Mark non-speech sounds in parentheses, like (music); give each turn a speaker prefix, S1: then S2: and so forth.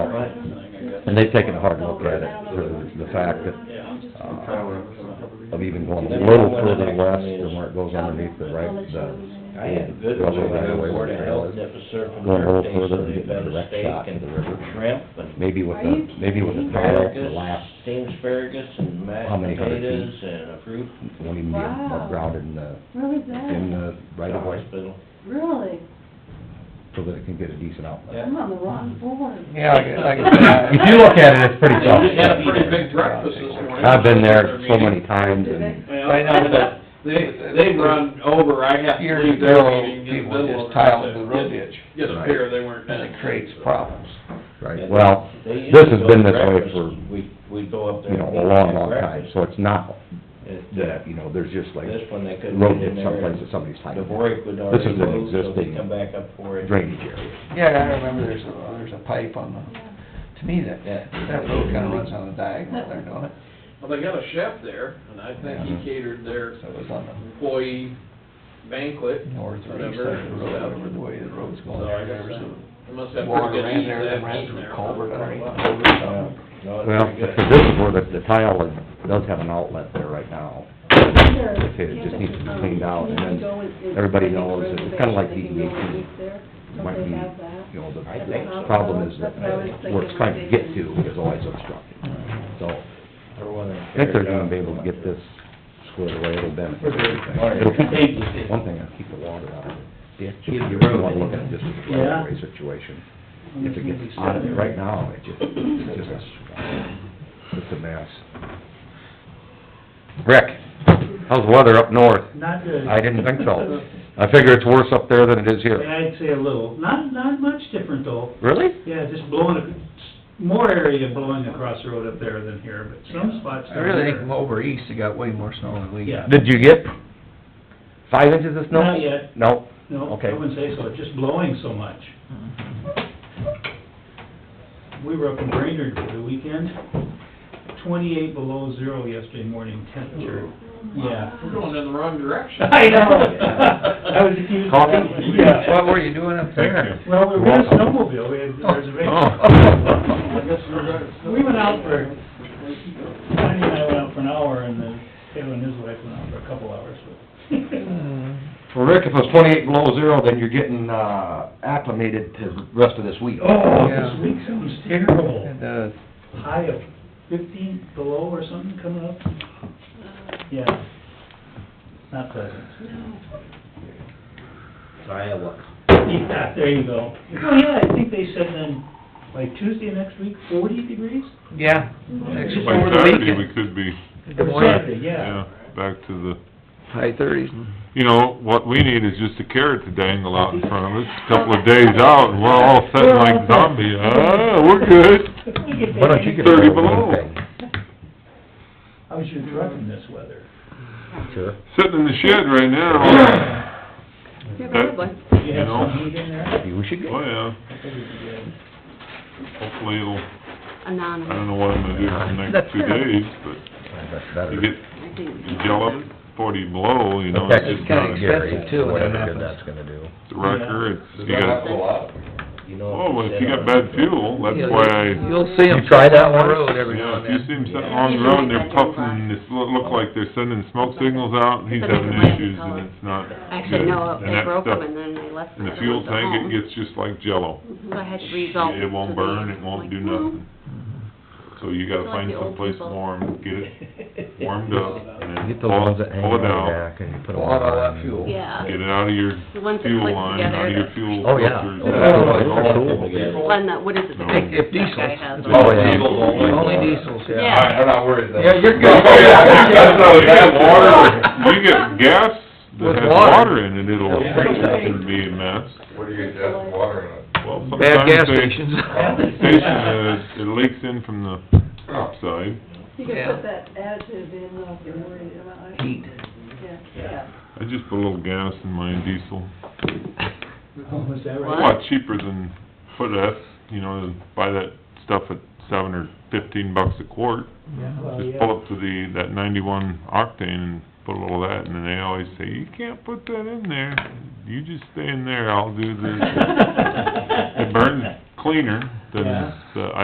S1: And they've taken a hard look at it for the fact that, uh, of even going a little further west than where it goes underneath the right, the.
S2: I had a good one,
S1: right
S2: I
S1: away where
S2: was board
S1: the
S2: of
S1: trail
S2: health
S1: is.
S2: deficit from
S1: Going a little
S2: their day, so
S1: further and
S2: they've
S1: getting a
S2: had
S1: direct shot
S2: steak
S1: to
S2: and
S1: the river.
S2: shrimp and
S1: Maybe with the, maybe with the barrel to the
S2: asparagus,
S1: last,
S2: steamed asparagus and
S1: How
S2: mashed
S1: many hundred feet?
S2: potatoes and a fruit.
S1: won't even be
S3: Wow.
S1: grounded in the,
S3: Where was
S1: in uh,
S3: that?
S1: the right of way,
S2: Hospital.
S3: Really?
S1: so that it can get a decent outlet.
S3: I'm on the wrong board.
S4: Yeah, I guess, I
S2: (laughs)
S1: If you look at it, it's pretty tough.
S2: They had a pretty
S5: big breakfast this morning.
S1: I've been there so many times
S3: Did
S1: and,
S3: they?
S4: I know, but-
S5: They, they run over, I have to
S4: Years
S5: leave their
S4: ago,
S5: meeting in the
S4: people
S5: middle of
S4: just
S5: it.
S4: tiled the road ditch,
S5: Get a pier, they weren't.
S4: and it
S5: done.
S4: creates problems.
S1: right, well, this has been this way for,
S2: We, we go up there.
S1: you know,
S2: and
S1: a
S2: eat
S1: long,
S2: their
S1: long time,
S2: breakfast.
S1: so it's not
S2: It, uh,
S1: that, you know, there's just like
S2: This one, they couldn't
S1: road
S2: get
S1: ditch
S2: in
S1: someplace that
S2: there.
S1: somebody's
S2: The
S1: hiding.
S2: break would
S1: This
S2: already
S1: is an
S2: close, so we
S1: existing
S2: come back up for it.
S1: drainage area.
S4: Yeah, I remember there's a, there's a pipe on the, to me, that,
S2: Yeah.
S4: that road kinda runs on the diagonal there, don't it?
S5: Well, they got a chef there, and I think he catered their
S4: So it was on the
S5: employee banquet,
S4: north or east
S5: whatever.
S4: side of the road, whatever the way the road's going.
S5: So I
S4: There
S5: guess
S4: was
S5: that-
S4: a
S5: They must have pretty
S4: Water
S5: good
S4: ran
S5: heat
S4: there,
S5: that
S4: then ran
S5: heat in
S4: through
S5: there.
S4: a culvert underneath the
S5: Well,
S4: culvert or
S2: Yeah.
S4: something.
S2: Uh, No, it's
S1: Well,
S2: pretty good.
S1: so this is where the, the tile is, does have an outlet there right now. It just needs to be cleaned out, and then everybody knows that it's kinda like the EDC.
S3: Don't
S1: might
S3: they
S1: be,
S3: have that?
S1: you know, the
S2: I think so.
S1: the problem is that where it's trying to get to is always obstructed. So,
S2: Or whether-
S1: I think they're gonna be able to get this squared away, it'll benefit
S2: Or-
S1: everything. It'll keep, one thing, it'll keep the water out of the ditch.
S2: Keep the
S1: You
S2: road
S1: wanna
S2: in.
S1: look at it just as a
S6: Yeah.
S1: right-of-way situation. If it gets out of it right now, it just, it's just a, it's a mess. Rick, how's the weather up north?
S6: Not good.
S1: I didn't think so.
S6: (laughs)
S1: I figure it's worse up there than it is here.
S6: I'd say a little, not, not much different though.
S1: Really?
S6: Yeah, just blowing, a- more area blowing across the road up there than here, but some spots
S4: I
S6: down
S4: really think
S6: there.
S4: over east, it got way more snow than we got.
S6: Yeah.
S1: Did you get five inches of snow?
S6: Not yet,
S1: No?
S6: no,
S1: Okay.
S6: I wouldn't say so, it's just blowing so much. We were up in Brainerd for the weekend, twenty-eight below zero yesterday morning temperature. Yeah.
S5: We're going in the wrong
S4: (laughs)
S5: direction.
S6: I know.
S5: (laughs)
S6: I was accused of that.
S1: Coffee?
S6: Yeah.
S4: What were you doing up there?
S6: Well, we were in a snowmobile, we had (laughs)
S4: Oh.
S6: reservations.
S5: I guess we're gonna-
S6: We went out for, Connie and I went out for an hour, and then Taylor and his wife went out for a
S4: (laughs)
S6: couple hours, but.
S1: Well, Rick, if it's twenty-eight below zero, then you're getting, uh, acclimated to the rest of this week.
S6: Oh,
S4: Yeah.
S6: this week sounds terrible.
S4: It does.
S6: High of fifteen below or something coming up? Yeah. Not pleasant. (laughs)
S2: It's Iowa.
S6: Yeah, there you go. Oh, yeah, I think they said then, like Tuesday next week, forty degrees?
S4: Yeah. Next
S7: By
S4: over the
S7: Saturday, we
S4: weekend.
S7: could be,
S4: Good morning.
S6: Saturday,
S7: yeah,
S6: yeah.
S7: back to the,
S4: High thirties.
S7: you know, what we need is just a carrot to dangle out in front of us, a couple of days out, and we're all sitting like zombies, ah, we're good.
S6: We could
S1: Why don't you
S6: take-
S1: get a
S7: Thirty
S1: little
S7: below.
S1: thing?
S6: How's your truck in this weather?
S1: Sure.
S7: Sitting in the shed right now,
S6: Do you have
S7: No.
S6: some heat in there?
S1: Maybe we should
S7: oh
S1: go.
S7: yeah,
S6: I think it'd be good.
S7: hopefully it'll, I
S8: Anonymous,
S7: don't know what I'm gonna do for the next two days, but
S1: That's
S7: you
S1: better.
S7: get,
S8: I think.
S7: you gallop forty below, you know,
S1: That's
S7: it's just
S4: kinda
S7: not a
S4: expensive,
S1: Gary,
S4: too, when
S1: whatever
S4: that
S1: good
S4: happens.
S1: that's gonna do.
S7: it's a wrecker, it's, you
S4: Not
S7: got,
S4: go up.
S2: You know.
S7: oh, well,
S2: sit
S7: if you
S2: on-
S7: got bad fuel, that's why I
S4: You'll see 'em
S1: You try that
S4: on the
S1: one?
S4: road every now
S7: Yeah,
S4: and
S7: if you
S4: then.
S7: see him sitting along the road, and they're puffing, this look, look like they're sending smoke signals out, and he's having issues, and it's not good.
S8: Actually, no,
S7: And
S8: they
S7: that
S8: broke
S7: stuff-
S8: them and then they left
S7: And
S8: them
S7: the
S8: at
S7: fuel
S8: home.
S7: tank, it gets just like jello.
S8: So I had to rezone.
S7: It won't burn, it won't do nothing. So you gotta
S8: Like
S7: find
S8: the old
S7: someplace
S8: people.
S7: warm, get it
S6: (laughs)
S7: warmed up, and
S1: You
S7: then
S1: get those
S7: pull
S1: ones
S7: it,
S1: that hang
S7: pull
S1: on
S7: it
S1: the
S7: out.
S1: back and you put them
S4: Pull out all that
S1: on.
S4: fuel.
S8: Yeah,
S7: Get it out of your
S8: the ones that
S7: fuel
S8: click
S7: line,
S8: together,
S7: out of your
S8: the
S7: fuel
S1: Oh, yeah.
S7: filters.
S1: (laughs) Oh,
S2: yeah.
S4: (laughs)
S1: yeah.
S8: one that, what is it? the-
S7: If-
S4: if
S8: that guy
S4: diesels,
S8: has
S7: it's
S8: on.
S1: Oh, yeah.
S7: Diesel only.
S4: Only diesels, yeah.
S8: Yeah.
S5: I'm not worried though.
S4: Yeah, you're good. (laughs)
S7: That's how you get water, you get gas that
S4: With
S7: has
S4: water.
S7: water in it, it'll
S4: It'll freeze up.
S7: it'll be a mess.
S5: What do you get water in it?
S7: Well,
S4: Bad
S7: sometimes
S4: gas
S7: they,
S4: stations.
S7: station, uh, it leaks in from the upside.
S3: You can
S4: Yeah.
S3: put that additive in, though, if you're worried about it.
S4: Heat.
S3: Yeah, yeah.
S7: I just put a little gas in my diesel.
S6: Oh, was that
S7: A
S6: right?
S7: lot cheaper than put a, you know, buy that stuff at seven or fifteen bucks a quart.
S6: Well,
S7: Just
S6: Oh, yeah.
S7: pull up to the, that ninety-one octane and put a little of that, and then they always say, you can't put
S6: (laughs)
S7: that in there. You just stay in there, I'll do this. It burns cleaner than
S6: Yeah.
S7: the